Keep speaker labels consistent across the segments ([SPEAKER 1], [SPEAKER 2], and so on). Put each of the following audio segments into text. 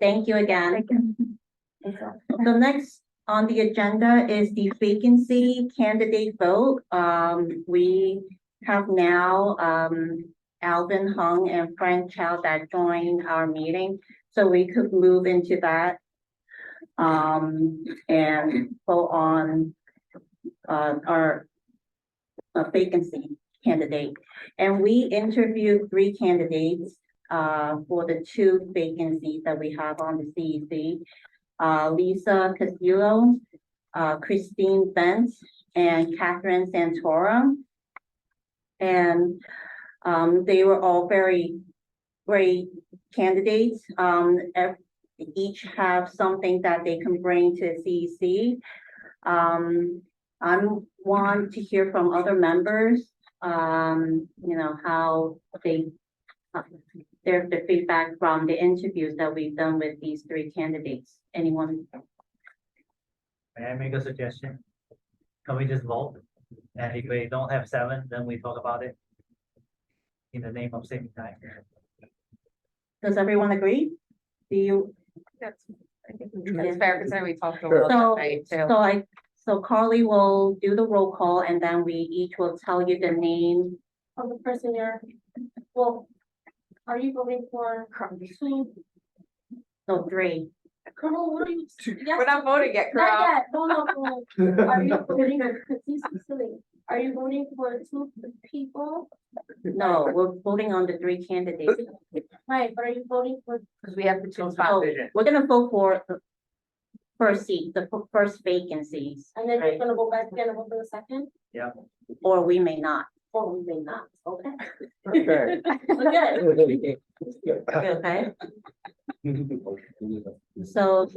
[SPEAKER 1] Thank you again. The next on the agenda is the vacancy candidate vote. Um, we have now, um, Alvin Hung and Frank Chow that joined our meeting, so we could move into that. Um, and go on, uh, our uh, vacancy candidate. And we interviewed three candidates, uh, for the two vacancies that we have on the CEC uh, Lisa Castillo, uh, Christine Bent, and Catherine Santorum. And, um, they were all very great candidates. Um, ev- each have something that they can bring to CEC. Um, I'm want to hear from other members, um, you know, how they uh, their, the feedback from the interviews that we've done with these three candidates. Anyone?
[SPEAKER 2] May I make a suggestion? Can we just vote? And if we don't have seven, then we talk about it. In the name of saving time.
[SPEAKER 1] Does everyone agree? Do you,
[SPEAKER 3] That's I think
[SPEAKER 1] Yeah.
[SPEAKER 3] that's fair, because we talked a
[SPEAKER 4] Sure.
[SPEAKER 3] lot
[SPEAKER 1] So-
[SPEAKER 3] tonight too.
[SPEAKER 1] so I, so Carly will do the roll call and then we each will tell you the name.
[SPEAKER 5] of the person you're, well, are you voting for Colonel,
[SPEAKER 1] No, three.
[SPEAKER 5] Colonel, what are you? yes,
[SPEAKER 3] We're not voting yet,
[SPEAKER 5] Not
[SPEAKER 3] Carol.
[SPEAKER 5] yet, no, no, no. Are you voting, because this is silly. Are you voting for two people?
[SPEAKER 1] No, we're voting on the three candidates.
[SPEAKER 5] Right, but are you voting for,
[SPEAKER 3] Because we have to
[SPEAKER 1] So
[SPEAKER 3] choose five.
[SPEAKER 1] we're gonna vote for the first seat, the fir- first vacancies,
[SPEAKER 5] and then
[SPEAKER 1] Right.
[SPEAKER 5] you're gonna go back again and vote for the second?
[SPEAKER 1] or we may not.
[SPEAKER 5] Or we may not, okay?
[SPEAKER 4] Okay.
[SPEAKER 5] Okay,
[SPEAKER 1] Okay, so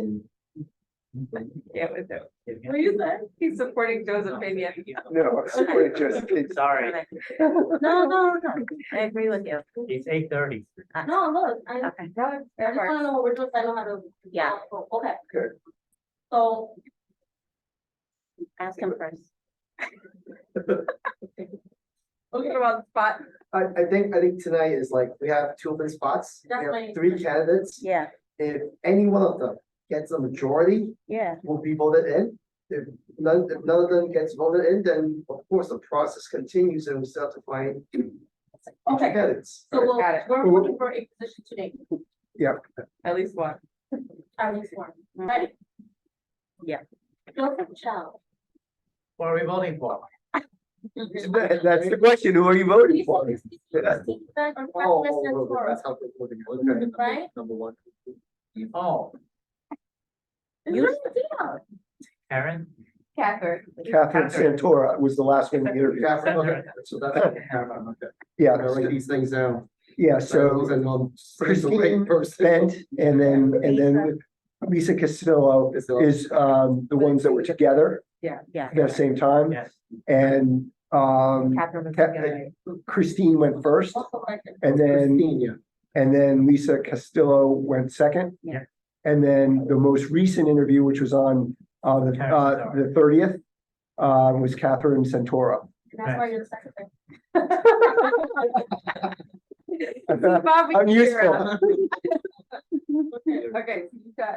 [SPEAKER 3] Yeah, we do.
[SPEAKER 5] what do you say?
[SPEAKER 3] He's supporting Joe's opinion.
[SPEAKER 4] No, sorry, just, it's,
[SPEAKER 2] Sorry,
[SPEAKER 1] no, no, no, I agree with you.
[SPEAKER 2] it's eight thirty.
[SPEAKER 5] No, look, I, I
[SPEAKER 1] Okay,
[SPEAKER 3] No, it's
[SPEAKER 5] just
[SPEAKER 3] fair.
[SPEAKER 5] wanna know what we're doing, I know how to.
[SPEAKER 1] Yeah.
[SPEAKER 5] Oh, Okay.
[SPEAKER 4] Good.
[SPEAKER 5] So,
[SPEAKER 1] ask him first.
[SPEAKER 3] Looking around the spot.
[SPEAKER 6] I, I think, I think tonight is like, we have two open spots, we
[SPEAKER 5] That's
[SPEAKER 6] have
[SPEAKER 5] right.
[SPEAKER 6] three candidates.
[SPEAKER 1] Yeah,
[SPEAKER 6] If any one of them gets a majority,
[SPEAKER 1] yeah,
[SPEAKER 6] will be voted in. If none, if none of them gets voted in, then of course the process continues and we still have to find two
[SPEAKER 5] okay,
[SPEAKER 6] candidates.
[SPEAKER 5] so we'll,
[SPEAKER 3] Got it.
[SPEAKER 5] we're voting for a position today,
[SPEAKER 3] At least one.
[SPEAKER 5] our next one,
[SPEAKER 1] Mm.
[SPEAKER 5] right?
[SPEAKER 1] Yeah.
[SPEAKER 5] Joseph Chow.
[SPEAKER 2] What are we voting for?
[SPEAKER 4] that- that's the question, who are you voting for?
[SPEAKER 6] Oh, oh, oh, that's how they're voting, okay.
[SPEAKER 5] Mm-hmm. Right?
[SPEAKER 6] Number one.
[SPEAKER 2] Oh,
[SPEAKER 1] You-
[SPEAKER 2] Karen?
[SPEAKER 3] Catherine.
[SPEAKER 4] Catherine Santora was the last one here.
[SPEAKER 6] Catherine, okay, so that's what we have, um, okay. I gotta write
[SPEAKER 4] Yeah,
[SPEAKER 6] these things down.
[SPEAKER 4] yeah,
[SPEAKER 6] So,
[SPEAKER 4] so
[SPEAKER 6] and I'm saying the
[SPEAKER 4] Christine
[SPEAKER 6] right person.
[SPEAKER 4] Bent and then, and then Lisa Castillo
[SPEAKER 6] uh,
[SPEAKER 4] is, um, the ones that were together
[SPEAKER 1] yeah.
[SPEAKER 4] at the same time.
[SPEAKER 2] Yes.
[SPEAKER 4] And, um,
[SPEAKER 3] Catherine was
[SPEAKER 4] Cat-
[SPEAKER 3] together.
[SPEAKER 4] Christine went first and
[SPEAKER 6] Oh,
[SPEAKER 4] then,
[SPEAKER 6] Christine, yeah.
[SPEAKER 4] and then Lisa Castillo went second.
[SPEAKER 2] Yeah.
[SPEAKER 4] And then the most recent interview, which was on, uh, the, uh, the thirtieth, uh, was Catherine Santora.
[SPEAKER 5] That's why you're the secretary.
[SPEAKER 3] Bobby
[SPEAKER 4] I'm
[SPEAKER 3] Kira.
[SPEAKER 4] useful.
[SPEAKER 3] Okay, so you got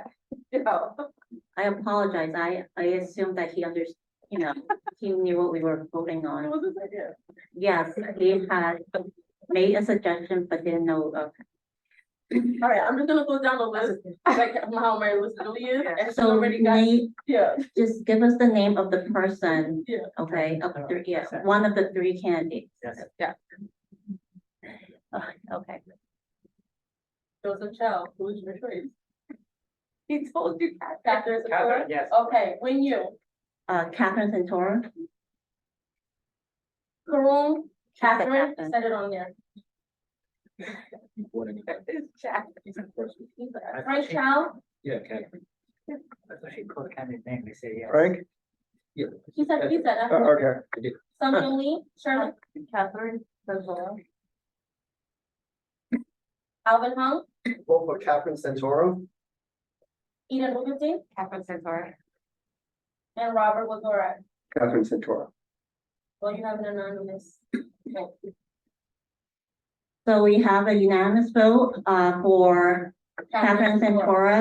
[SPEAKER 3] Joe.
[SPEAKER 1] I apologize. I, I assumed that he under, you know, he knew what we were voting on. Yes, he had made a suggestion, but didn't know, okay.
[SPEAKER 5] All right, I'm just gonna go down the list, like how my list really is, and she's
[SPEAKER 1] So
[SPEAKER 5] already got,
[SPEAKER 1] name-
[SPEAKER 5] yeah,
[SPEAKER 1] just give us the name of the person,
[SPEAKER 5] yeah.
[SPEAKER 1] okay, of the three, yes, one of the three candidates.
[SPEAKER 2] Oh, Yes.
[SPEAKER 1] Ugh, Okay,
[SPEAKER 5] Joseph Chow, who is your choice?
[SPEAKER 3] He told you Catherine.
[SPEAKER 5] Doctor Sakura?
[SPEAKER 2] yes.
[SPEAKER 5] Okay, when you,
[SPEAKER 1] uh, Catherine Santora,
[SPEAKER 5] Karun, Catherine,
[SPEAKER 1] Catherine.
[SPEAKER 5] said it on there.
[SPEAKER 3] It's Jack.
[SPEAKER 5] Frank Chow,
[SPEAKER 6] Yeah, Catherine.
[SPEAKER 2] I thought she called Karen's name, they say yes.
[SPEAKER 4] Frank?
[SPEAKER 5] he said, he said,
[SPEAKER 6] Oh,
[SPEAKER 4] Uh, Okay.
[SPEAKER 5] Summer Lee, Shirley,
[SPEAKER 3] Catherine. Santora.
[SPEAKER 5] Alvin Hung,
[SPEAKER 6] Vote for Catherine Santoro.
[SPEAKER 5] Eden Wilkinson,
[SPEAKER 3] Catherine Santora.
[SPEAKER 5] and Robert Wazora.
[SPEAKER 4] Catherine Santora.
[SPEAKER 5] Well, you have an anonymous. vote.
[SPEAKER 1] so we have a unanimous vote, uh, for Catherine Santora